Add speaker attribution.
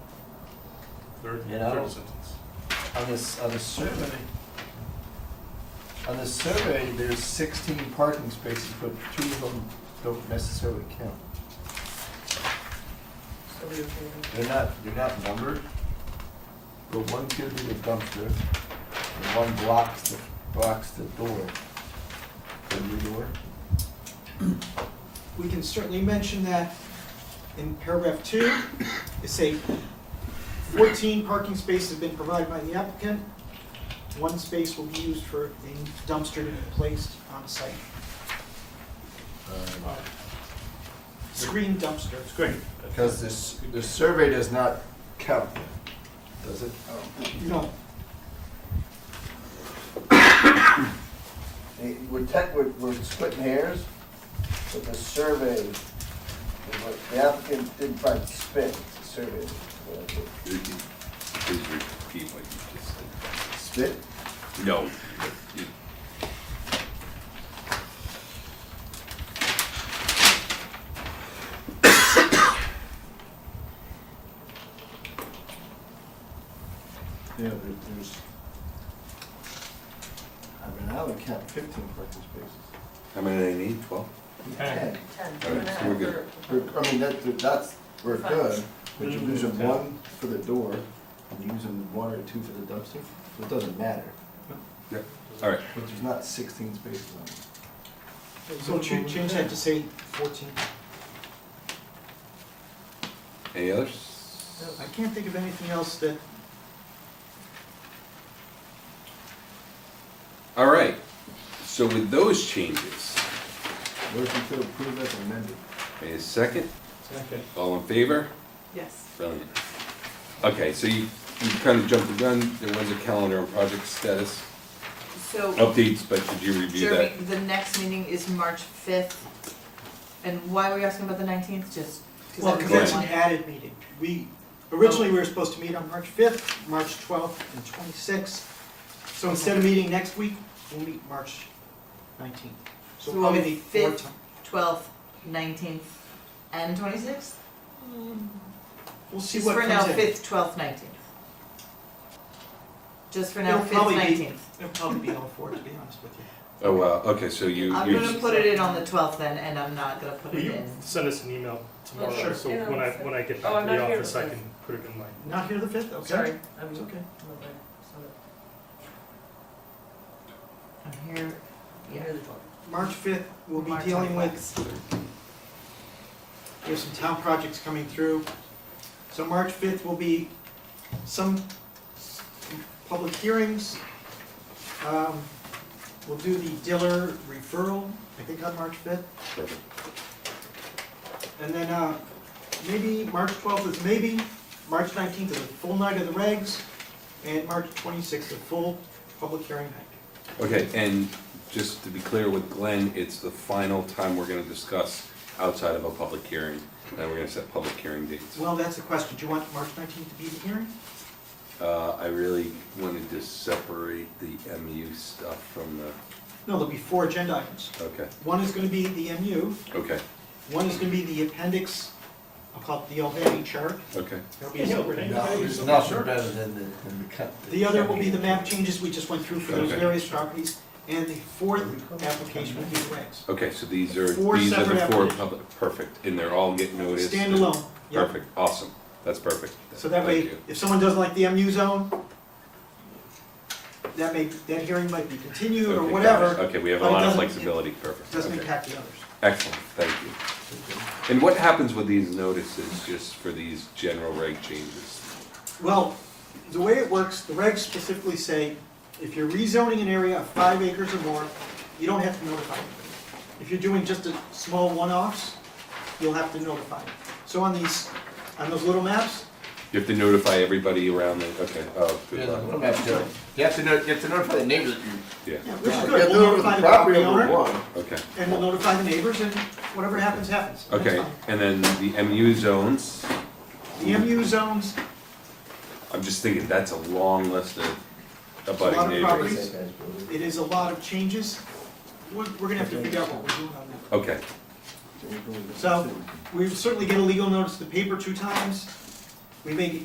Speaker 1: third,
Speaker 2: You know?
Speaker 1: third sentence.
Speaker 2: On this, on the survey, on the survey, there's sixteen parking spaces, but two of them don't necessarily count. They're not, they're not numbered, but one could be the dumpster, and one blocks the, blocks the door, the new door.
Speaker 3: We can certainly mention that in paragraph two, it say fourteen parking spaces have been provided by the applicant. One space will be used for a dumpster to be placed on site.
Speaker 2: Um,
Speaker 3: Uh, Screen dumpster.
Speaker 1: It's great.
Speaker 2: Because this, the survey does not count, them, does it?
Speaker 3: No,
Speaker 4: Hey, We're tech, we're, we're splitting hairs, but the survey, is what the applicant didn't participate, the survey. is what I did.
Speaker 5: Please repeat what you just said.
Speaker 4: Spit?
Speaker 5: No. you-
Speaker 4: Yeah, there, there's. I mean, I would count fifteen parking spaces.
Speaker 5: How many they need, twelve?
Speaker 4: Ten.
Speaker 6: Ten.
Speaker 5: All right, so we're good.
Speaker 4: We're- I mean, that, that's, we're good, but you're using
Speaker 1: Mhm.
Speaker 4: one for the door, and you're using one or two for the dumpster, so it doesn't matter.
Speaker 5: Yep. All right,
Speaker 4: But there's not sixteen spaces on it.
Speaker 3: so cha- change that to say fourteen.
Speaker 5: any others?
Speaker 3: I can't think of anything else that
Speaker 5: All right, so with those changes,
Speaker 4: Motion to approve as amended.
Speaker 5: a second,
Speaker 1: Second.
Speaker 5: all in favor?
Speaker 6: Yes.
Speaker 5: Brilliant. Okay, so you, you kind of jumped the gun, there was a calendar on project status
Speaker 6: So,
Speaker 5: updates, but did you review that?
Speaker 6: Jeremy, the next meeting is March fifth, and why were you asking about the nineteenth, just? 'cause
Speaker 3: Well,
Speaker 6: I
Speaker 3: because
Speaker 6: really
Speaker 3: that's an
Speaker 6: wanted-
Speaker 3: added meeting. We, originally, we were supposed to meet on March fifth, March twelfth, and twenty-sixth. So instead of meeting next week, we'll meet March nineteenth. So
Speaker 6: So
Speaker 3: probably
Speaker 6: on the
Speaker 3: the fourth
Speaker 6: 5th?
Speaker 3: time.
Speaker 6: Twelfth, nineteenth, and twenty-sixth?
Speaker 3: We'll see
Speaker 6: Just
Speaker 3: what
Speaker 6: for now,
Speaker 3: comes in.
Speaker 6: fifth, twelfth, nineteenth. Just for now,
Speaker 3: It'll
Speaker 6: fifth,
Speaker 3: probably be-
Speaker 6: nineteenth.
Speaker 3: It'll probably be all four, to be honest with you.
Speaker 5: Oh, wow, okay, so you,
Speaker 6: I'm
Speaker 5: you,
Speaker 6: gonna put it in on the twelfth then, and I'm not gonna put
Speaker 1: Will
Speaker 6: it
Speaker 1: you
Speaker 6: in.
Speaker 1: send us an email tomorrow,
Speaker 3: sure.
Speaker 1: so
Speaker 7: Yeah,
Speaker 1: when I,
Speaker 7: I'll
Speaker 1: when I get
Speaker 7: Oh,
Speaker 1: back
Speaker 7: I'm
Speaker 1: to the
Speaker 7: not here
Speaker 1: office,
Speaker 7: with
Speaker 1: I
Speaker 7: this.
Speaker 1: can put it in my.
Speaker 3: Not here the fifth, okay?
Speaker 6: Sorry, I'm,
Speaker 3: It's okay.
Speaker 6: I'm here, yeah.
Speaker 3: March fifth, we'll be
Speaker 6: March
Speaker 3: dealing with,
Speaker 6: 26th.
Speaker 3: there's some town projects coming through. So March fifth will be some s- public hearings. Um, We'll do the Diller referral, I think on March fifth. And then, uh, maybe March twelfth is maybe, March nineteenth is a full night of the regs, and March twenty-sixth is a full public hearing night.
Speaker 5: okay, and just to be clear with Glenn, it's the final time we're gonna discuss outside of a public hearing, and we're gonna set public hearing dates.
Speaker 3: Well, that's the question, do you want March nineteenth to be the hearing?
Speaker 5: Uh, I really wanted to separate the MU stuff from the,
Speaker 3: No, there'll be four agenda items.
Speaker 5: okay,
Speaker 3: One is gonna be the MU,
Speaker 5: okay,
Speaker 3: one is gonna be the appendix, I'll call it the Albany chart.
Speaker 5: okay.
Speaker 3: There'll be a separate-
Speaker 2: No, there's nothing better than the, than the cut.
Speaker 3: The other will be the map changes we just went through for those
Speaker 5: Okay.
Speaker 3: various properties, and the fourth application will be the regs.
Speaker 5: Okay, so these are,
Speaker 3: Four
Speaker 5: these are the
Speaker 3: separate
Speaker 5: four
Speaker 3: applications.
Speaker 5: public, perfect, and they're all getting noticed. and-
Speaker 3: Standalone,
Speaker 5: Oh,
Speaker 3: yep.
Speaker 5: Perfect, awesome, that's perfect.
Speaker 3: So that way,
Speaker 5: Thank you.
Speaker 3: if someone doesn't like the MU zone, that may, that hearing might be continued or
Speaker 5: Okay, got it.
Speaker 3: whatever,
Speaker 5: Okay, we have a
Speaker 3: but it
Speaker 5: lot of
Speaker 3: doesn't-
Speaker 5: flexibility, perfect.
Speaker 3: doesn't
Speaker 5: Okay.
Speaker 3: impact the others.
Speaker 5: Excellent, thank you. And what happens with these notices, just for these general reg changes?
Speaker 3: Well, the way it works, the regs specifically say, if you're rezoning an area of five acres or more, you don't have to notify anybody. If you're doing just a small one-offs, you'll have to notify. So on these, on those little maps,
Speaker 5: You have to notify everybody around the, okay, oh,
Speaker 2: Yeah,
Speaker 5: good
Speaker 2: the
Speaker 5: luck,
Speaker 2: one map done. You have to know, you have to notify the neighbors that you.
Speaker 5: yeah,
Speaker 3: yeah, which is
Speaker 4: Yeah,
Speaker 3: good,
Speaker 4: they're
Speaker 3: we'll
Speaker 4: over the
Speaker 3: notify the
Speaker 4: property
Speaker 3: property
Speaker 4: owner.
Speaker 3: owner,
Speaker 5: okay.
Speaker 3: and we'll notify the neighbors, and whatever happens, happens. That's
Speaker 5: Okay,
Speaker 3: fine.
Speaker 5: and then the MU zones,
Speaker 3: The MU zones,
Speaker 5: I'm just thinking, that's a long list of
Speaker 3: lot
Speaker 5: abutting
Speaker 3: of
Speaker 5: neighbors.
Speaker 3: properties.
Speaker 4: Say that, bro.
Speaker 3: it is a lot of changes, we're, we're gonna have to figure out what we're doing on that.
Speaker 5: Okay,
Speaker 3: So- We certainly get a legal notice to paper two times. We may